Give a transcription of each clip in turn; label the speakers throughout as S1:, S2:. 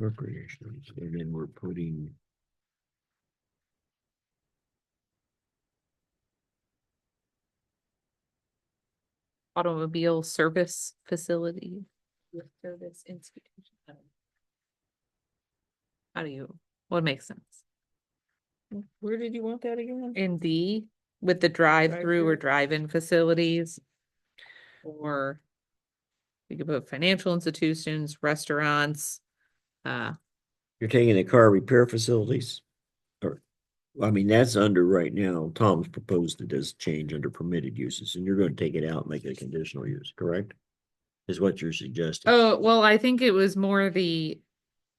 S1: Recreational. And then we're putting.
S2: automobile service facility. With service institution. How do you, what makes sense?
S3: Where did you want that again?
S2: In D, with the drive-through or
S3: Drive-through.
S2: drive-in facilities. Or. We could put financial institutions, restaurants, uh,
S1: You're taking the car repair facilities? Or, I mean, that's under right now, Tom's proposed it as change under permitted uses, and you're gonna take it out, and make it a conditional use, correct? Is what you're suggesting.
S2: oh, well, I think it was more the.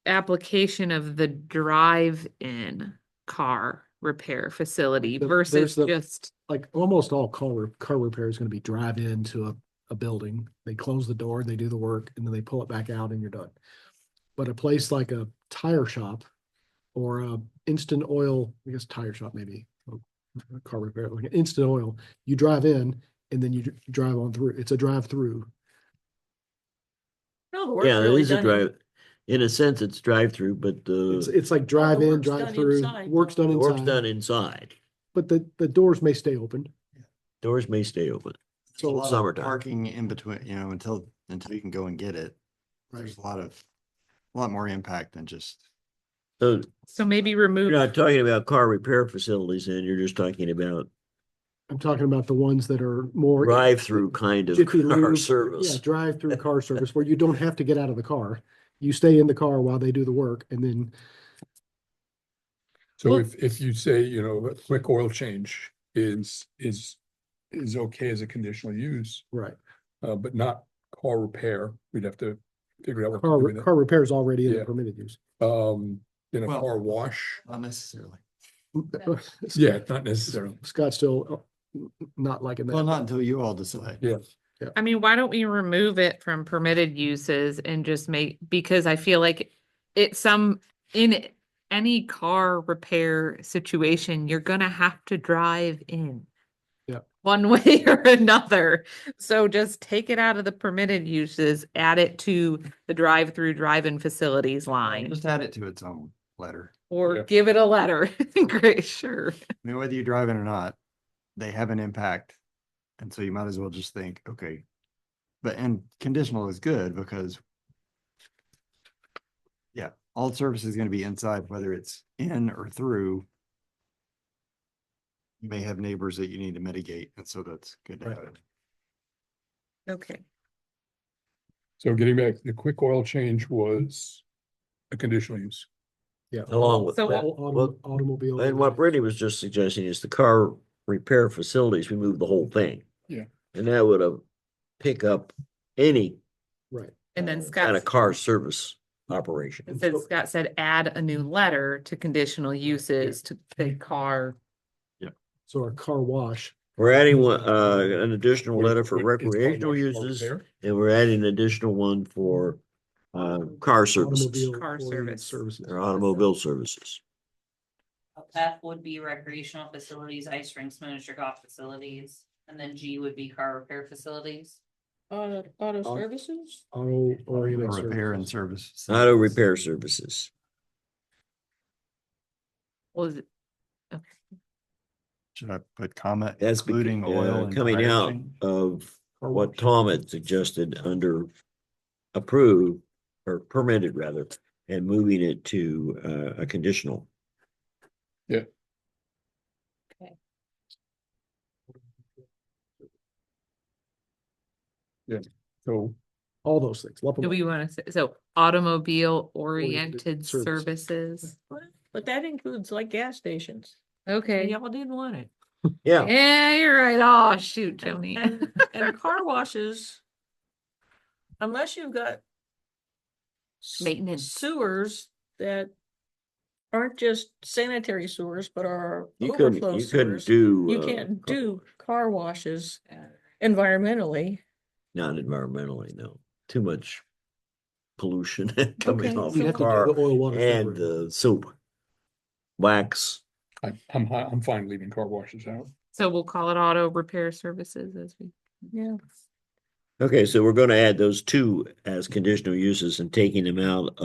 S2: Application of the drive-in car repair facility
S4: The-
S2: versus
S4: there's the-
S2: just.
S4: like almost all car, re- car repair is gonna be drive into a, a building. They close the door, they do the work, and then they pull it back out and you're done. But a place like a tire shop or a instant oil, I guess tire shop maybe, or a car repair, like an instant oil, you drive in and then you dr- drive on through. It's a drive through.
S3: No, the work's
S1: Yeah, it
S3: really
S1: is a
S3: done in-
S1: drive, in a sense, it's drive-through, but
S4: It's,
S1: the
S4: it's like drive in,
S3: work's done
S4: drive through,
S3: inside.
S4: work's done
S1: work's done inside,
S4: inside, but the, the doors may stay open.
S1: doors may stay open.
S5: There's a
S4: So
S5: lot of
S1: summertime.
S5: Parking in between, you know, until, until you can go and get it. There's a lot of, a lot more impact than just.
S1: So
S2: So maybe
S1: you're
S2: remove,
S1: not talking about car repair facilities, and you're just talking about
S4: I'm talking about the ones that are more.
S1: drive-through kind of
S4: Jiffy
S1: car
S4: Lube,
S1: service.
S4: Yeah, drive-through car service where you don't have to get out of the car. You stay in the car while they do the work and then
S6: So
S2: Well-
S6: if, if you say, you know, a quick oil change is, is, is okay as a conditional use,
S4: right.
S6: uh, but not car repair, we'd have to figure out what
S4: Car
S6: to do
S4: re-
S6: with
S4: car repair is already in the
S6: Yeah.
S4: permitted use.
S6: it. Um, in a
S5: Well-
S6: car wash,
S5: Not necessarily.
S6: yeah, not necessarily.
S4: Scott's still uh, n- n- not liking
S5: Well,
S4: that.
S5: not until you all decide.
S6: Yeah.
S2: I mean, why don't we remove it from permitted uses and just make, because I feel like it's some, in any car repair situation, you're gonna have to drive in.
S4: Yep.
S2: One way or another. So just take it out of the permitted uses, add it to the drive-through drive-in facilities line,
S5: Just add it to its own letter.
S2: or
S6: Yeah.
S2: give it a letter. Great, sure.
S5: I mean, whether you drive it or not, they have an impact. And so you might as well just think, okay. But, and conditional is good because yeah, all service is gonna be inside, whether it's in or through. You may have neighbors that you need to mitigate, and so that's good to
S4: Right.
S5: have.
S2: Okay.
S6: So getting back, the quick oil change was a conditional use.
S4: Yeah.
S1: Along with
S2: So
S1: that,
S4: All autom-
S1: well,
S4: Automobile.
S1: And what Brittany was just suggesting is the car repair facilities, we move the whole thing.
S6: Yeah.
S1: And that would uh pick up any
S4: Right.
S2: And then
S1: kind of
S2: Scott's
S1: car service operation.
S2: It said Scott said add a new letter to conditional uses to the car.
S4: So our car wash,
S1: We're adding one, uh, an additional
S6: Or-
S1: letter for
S6: or it's car
S1: recreational
S6: wash, car
S1: uses,
S6: repair.
S1: and we're adding an additional one for, uh, car services
S4: automobile.
S2: Car
S4: oriented
S2: service.
S4: Services.
S1: or automobile services.
S7: F would be recreational facilities, ice rinks, miniature golf facilities, and then G would be car repair facilities.
S3: Auto, auto
S4: Auto-
S3: services?
S4: Auto
S5: Or
S4: oriented
S5: Repair and
S4: services.
S5: service.
S1: Auto
S5: facilities.
S1: repair services.
S2: Was it
S5: Should I put comma
S1: That's becau-
S5: including
S1: uh,
S5: oil? and
S1: Coming out
S5: driving?
S1: of
S4: Car
S1: what
S4: wash.
S1: Tom had suggested under approved or permitted rather, and moving it to uh, a conditional.
S6: So
S4: All those things. lump 'em
S2: do
S4: up.
S2: we want to say, so automobile oriented
S4: Oriented service.
S2: services?
S3: But that includes like gas stations. And
S2: Okay,
S3: Y'all didn't want it.
S1: Yeah,
S2: yeah, you're right. Oh, shoot, Joni.
S3: And, and car washes. Unless you've got. s-
S2: Maintenance.
S3: Sewers that aren't just sanitary sewers, but are
S1: you
S3: overflow
S1: couldn't, you couldn't
S3: sewers.
S1: do.
S3: You
S1: uh,
S3: can't
S1: car-
S3: do car washes environmentally.
S1: Not environmentally, no, too much pollution coming
S3: Okay,
S1: off
S3: so
S4: You'd
S1: the
S4: have to do
S1: car
S4: the oil, water,
S1: and
S4: separate.
S1: the soap, wax.
S6: I, I'm, hi- I'm fine leaving car washes out.
S2: So we'll call it auto repair services as we.
S3: Yeah.
S1: Okay, so we're gonna add those two as conditional uses and taking them out